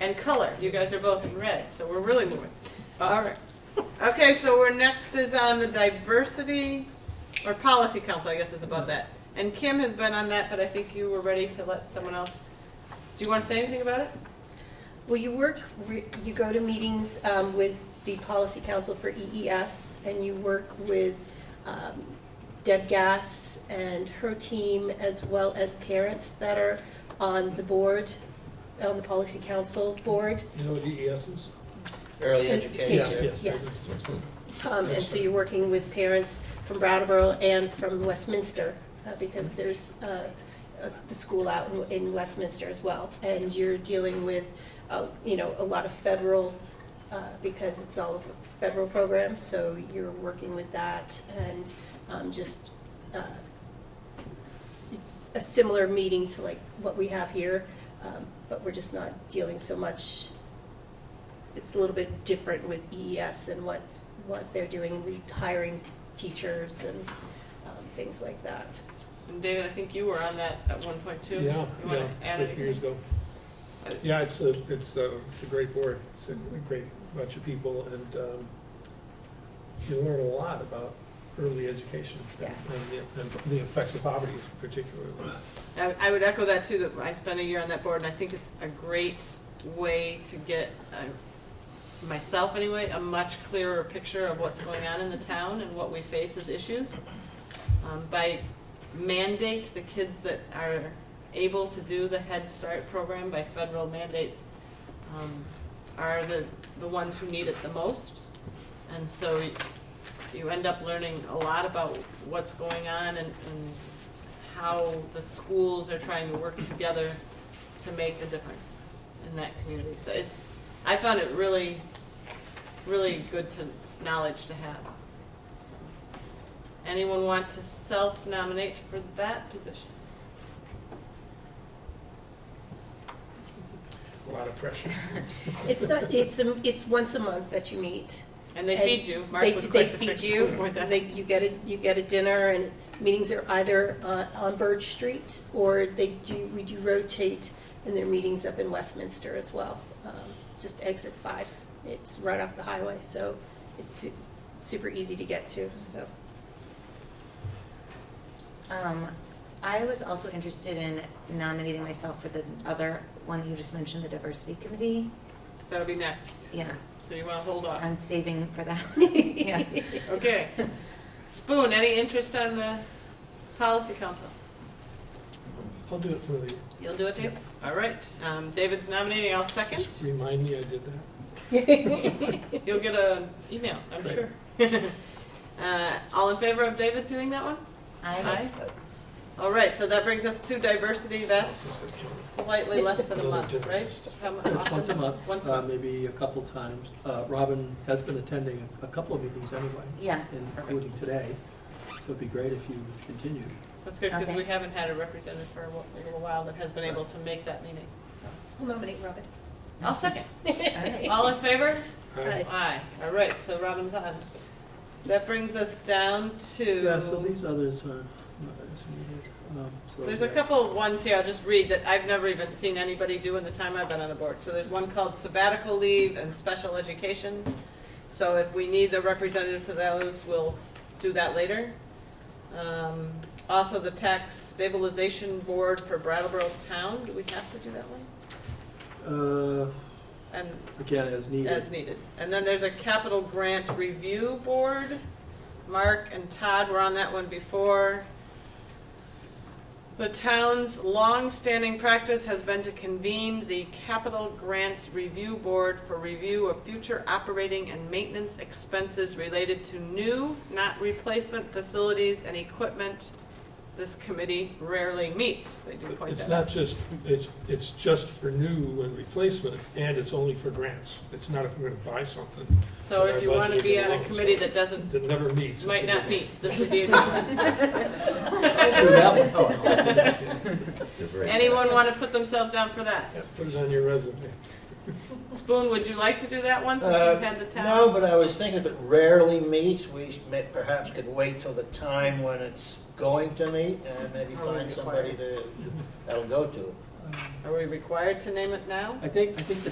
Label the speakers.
Speaker 1: and color. You guys are both in red, so we're really moving. All right. Okay, so we're next is on the diversity or policy council, I guess is above that. And Kim has been on that, but I think you were ready to let someone else. Do you want to say anything about it?
Speaker 2: Well, you work, re- you go to meetings um, with the Policy Council for EES, and you work with um, Deb Gass and her team, as well as parents that are on the board, on the Policy Council board.
Speaker 3: You know E what DES is?
Speaker 4: Early
Speaker 2: Good.
Speaker 4: education.
Speaker 2: Yeah. Yes. Um, And so you're working with parents from Brattleboro and from Westminster, uh, because there's uh, uh, the school out in- in Westminster as well. And you're dealing with, uh, you know, a lot of federal, uh, because it's all of federal programs, so you're working with that and um, just, uh, it's a similar meeting to like what we have here, um, but we're just not dealing so much it's a little bit different with EES and what, what they're doing, re- hiring teachers and um, things like that.
Speaker 1: And David, I think you were on that at one point too.
Speaker 3: Yeah,
Speaker 1: You want
Speaker 3: yeah,
Speaker 1: to add
Speaker 3: a few years
Speaker 1: anything?
Speaker 3: ago. Yeah, it's a, it's a, it's a great board, it's a great bunch of people, and um, you learn a lot about early education.
Speaker 2: Yes.
Speaker 3: And the- And the effects of poverty particularly.
Speaker 1: I, I would echo that too, that I spent a year on that board and I think it's a great way to get, uh, myself anyway, a much clearer picture of what's going on in the town and what we face as issues. Um, by mandate, the kids that are able to do the Head Start program by federal mandates um, are the, the ones who need it the most. And so y- you end up learning a lot about what's going on and, and how the schools are trying to work together to make a difference in that community. So it's, I found it really, really good to, knowledge to have. So, Anyone want to self-nominate for that position?
Speaker 3: A lot of pressure.
Speaker 2: It's not, it's, a- it's once a month that you meet.
Speaker 1: And they
Speaker 2: And
Speaker 1: feed you. Mark
Speaker 2: They,
Speaker 1: was
Speaker 2: they
Speaker 1: quick to
Speaker 2: feed
Speaker 1: fix-
Speaker 2: you,
Speaker 1: point that.
Speaker 2: they, you get a, you get a dinner, and meetings are either uh, on Birch Street, or they do, we do rotate, and there are meetings up in Westminster as well, um, just exit five. It's right off the highway, so it's su- super easy to get to, so.
Speaker 5: Um, I was also interested in nominating myself for the other one you just mentioned, the diversity committee.
Speaker 1: That'll be next.
Speaker 5: Yeah,
Speaker 1: So you want to hold off.
Speaker 5: I'm saving for that. yeah.
Speaker 1: Okay. Spoon, any interest on the policy council?
Speaker 3: I'll do it for the,
Speaker 1: You'll do it, Dave? All right. Um, David's nominating. I'll second.
Speaker 3: just remind me I did that.
Speaker 1: You'll get an email, I'm
Speaker 3: Right.
Speaker 1: sure. Uh, All in favor of David doing that one?
Speaker 5: I,
Speaker 1: All right, so that brings us to diversity, that's
Speaker 3: Just a kill.
Speaker 1: slightly less than a
Speaker 6: Another
Speaker 1: month,
Speaker 3: different
Speaker 1: right?
Speaker 3: list.
Speaker 1: How mu-
Speaker 6: It's
Speaker 1: often?
Speaker 6: once a month,
Speaker 1: Once a
Speaker 6: uh,
Speaker 1: month.
Speaker 6: maybe a couple times. Uh, Robin has been attending a couple of meetings anyway,
Speaker 5: yeah,
Speaker 6: including today, so it'd be great if you continued.
Speaker 1: That's good, because
Speaker 5: Okay.
Speaker 1: we haven't had a representative for a wh- a little while that has been able to make that meeting, so.
Speaker 2: I'll nominate Robin.
Speaker 1: I'll second.
Speaker 5: right.
Speaker 1: All in favor?
Speaker 3: Aye.
Speaker 1: Aye. All right, so Robin's on. That brings us down to.
Speaker 6: Yeah, so these others are not as needed. um, so-
Speaker 1: There's a couple of ones here I'll just read that I've never even seen anybody do in the time I've been on the board. So there's one called sabbatical leave and special education. So if we need a representative to those, we'll do that later. Um, Also, the tax stabilization board for Brattleboro Town, do we have to do that one?
Speaker 6: Uh,
Speaker 1: And
Speaker 6: Again, as
Speaker 1: as
Speaker 6: needed.
Speaker 1: needed. And then there's a capital grant review board. Mark and Todd were on that one before. The town's longstanding practice has been to convene the Capital Grants Review Board for review of future operating and maintenance expenses related to new, not replacement facilities and equipment. This committee rarely meets, they do point
Speaker 3: It's
Speaker 1: that out.
Speaker 3: not just, it's, it's just for new and replacement, and it's only for grants. It's not if we're gonna buy something
Speaker 1: So if you want to be on a
Speaker 3: Budget.
Speaker 1: committee that doesn't,
Speaker 3: that never meets. it's a
Speaker 1: might not
Speaker 3: good-
Speaker 1: meet, this would be a good one.
Speaker 6: Do that one? Oh,
Speaker 1: Anyone want to put themselves down for that?
Speaker 3: Put it on your resume.
Speaker 1: Spoon, would you like to do that one since
Speaker 7: Uh,
Speaker 1: you've had the
Speaker 7: No,
Speaker 1: town?
Speaker 7: but I was thinking if it rarely meets, we may- perhaps could wait till the time when it's going to meet and maybe
Speaker 1: Or when
Speaker 7: find
Speaker 1: it's
Speaker 7: somebody to, that'll go to it.
Speaker 6: um,
Speaker 1: Are we required to name it now?
Speaker 6: I think, I think the